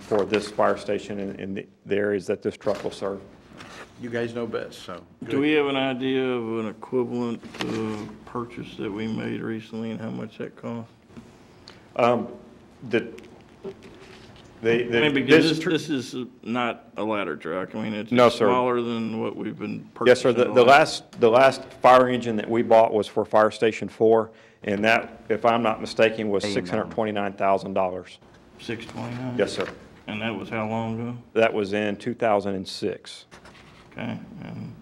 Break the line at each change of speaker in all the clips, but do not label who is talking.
for this fire station and, and the- the areas that this truck will serve.
You guys know best, so.
Do we have an idea of an equivalent uh, purchase that we made recently and how much that cost?
The, the,
I
the-
mean, because
this
this,
tr-
this is not a ladder truck. I mean, it's
No, sir.
smaller than what we've been
Yes,
purchasing.
sir. The, the last, the last fire engine that we bought was for Fire Station Four, and that, if I'm not mistaken, was six hundred twenty-nine thousand dollars.
Six twenty-nine?
Yes, sir.
And that was how long ago?
That was in two thousand and six.
Okay, and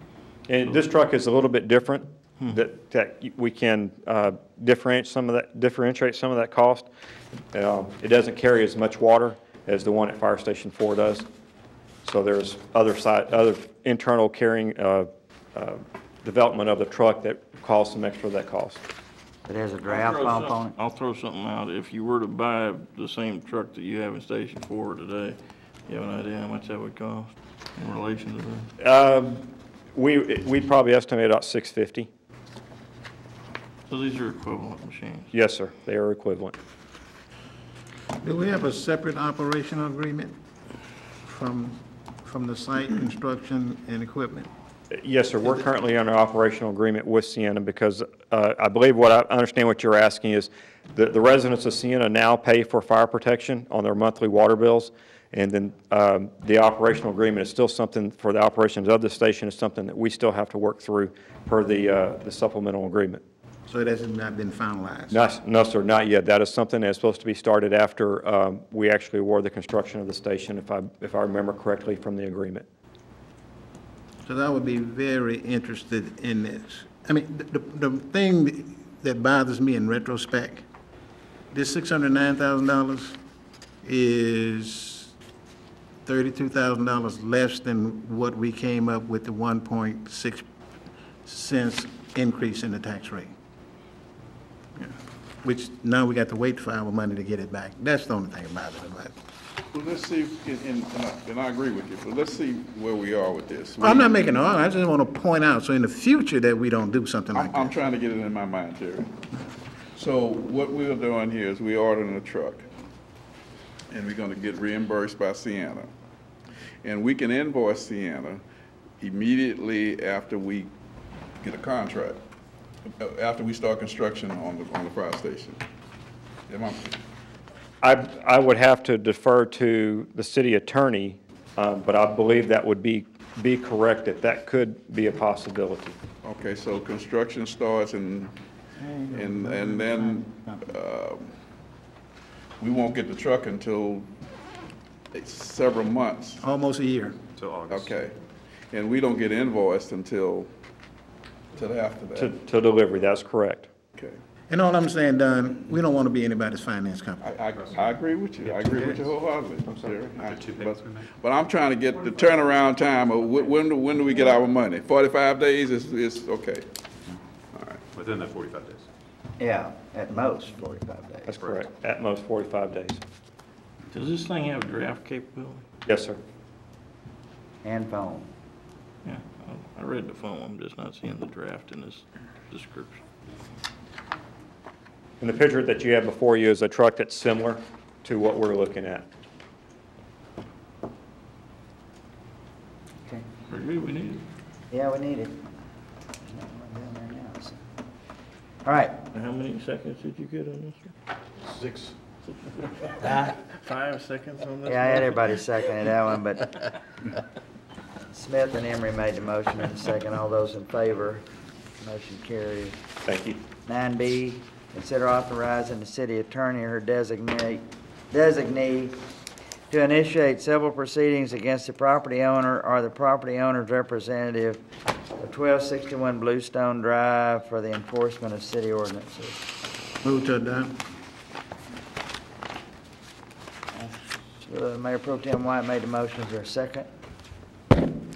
And this truck is a little bit different, that, that we can uh, differentiate some of that, differentiate some of that cost. Um, It doesn't carry as much water as the one at Fire Station Four does. So there's other side, other internal carrying, uh, uh, development of the truck that caused some extra of that cost.
It has a draft
Throw
pump
some-
on it.
I'll throw something out. If you were to buy the same truck that you have in Station Four today, you have an idea how much that would cost in relation to that?
We, we probably estimate about six fifty.
So these are equivalent machines.
Yes, sir, they are equivalent.
Do we have a separate operational agreement from, from the site construction and equipment?
Yes, sir. We're currently under operational agreement with Sienna because uh, I believe what I I understand what you're asking is the the residents of Sienna now pay for fire protection on their monthly water bills. And then um, the operational agreement is still something for the operations of the station is something that we still have to work through per the uh, the supplemental agreement.
So it has not been finalized?
No, s- No, sir, not yet. That is something that's supposed to be started after um, we actually award the construction of the station, if I if I remember correctly from the agreement.
Because I would be very interested in this. I mean, the, the the thing that bothers me in retrospect, this six hundred nine thousand dollars is thirty-two thousand dollars less than what we came up with the one point six cents increase in the tax rate. Yeah. Which now we got to wait for our money to get it back. That's the only thing that bothers me about it.
Well, let's see, if- and, and- and I- and I agree with you, but let's see where we are with this.
Well, I'm not making an argument, I just want to point out, so in the future that we don't do something like
I'm,
that.
I'm trying to get it in my mind, Terry. So what we are doing here is we ordering a truck, and we're gonna get reimbursed by Sienna. And we can invoice Sienna immediately after we get a contract, uh, after we start construction on the, on the fire station. Am I-
I, I would have to defer to the city attorney, um, but I believe that would be, be correct, that that could be a possibility.
Okay, so construction starts and, and, and then, um, we won't get the truck until it's several months,
Almost a year.
okay? And we don't get invoiced until, till after
To,
that,
to delivery, that's correct.
okay?
And all I'm saying, Don, we don't want to be anybody's finance company.
I, I, I agree with you, I agree with you wholeheartedly, Jerry. I- But but I'm trying to get the turnaround time of wh- when, do- when do we get our money? Forty-five days is, is, okay.
Within that 45 days.
Yeah, at most forty-five days.
That's correct. At most 45 days.
Does this thing have draft capability?
Yes, sir.
And phone.
Yeah, I- I read the phone, I'm just not seeing the draft in this description.
And the picture that you have before you is a truck that's similar to what we're looking at.
Okay.
Very good, we need it.
Yeah, we need it. There's not one down there now, so. All right,
Now, How many seconds did you get on this? one?
Six.
Five seconds on this?
Uh, yeah, I had
one?
everybody seconded that one, but Smith and Emery made the motion and second. All those in favor, motion carries.
Thank you.
Nine B, consider authorizing the city attorney or her designate, designee to initiate civil proceedings against the property owner or the property owner's representative of twelve sixty-one Bluestone Drive for the enforcement of city ordinances.
Move to adopt.
So, uh, Mayor Pro Tem White made the motion. Is there a second?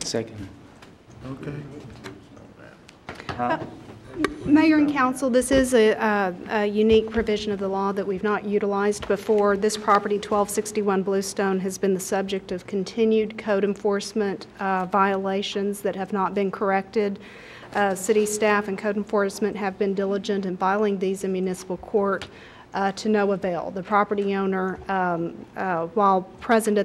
Second.
Okay.
Huh?
Mayor and council, this is a, a- a unique provision of the law that we've not utilized before. This property, 1261 Bluestone, has been the subject of continued code enforcement uh, violations that have not been corrected. Uh, City staff and code enforcement have been diligent in filing these in municipal court uh, to no avail. The property owner, um, uh, while present at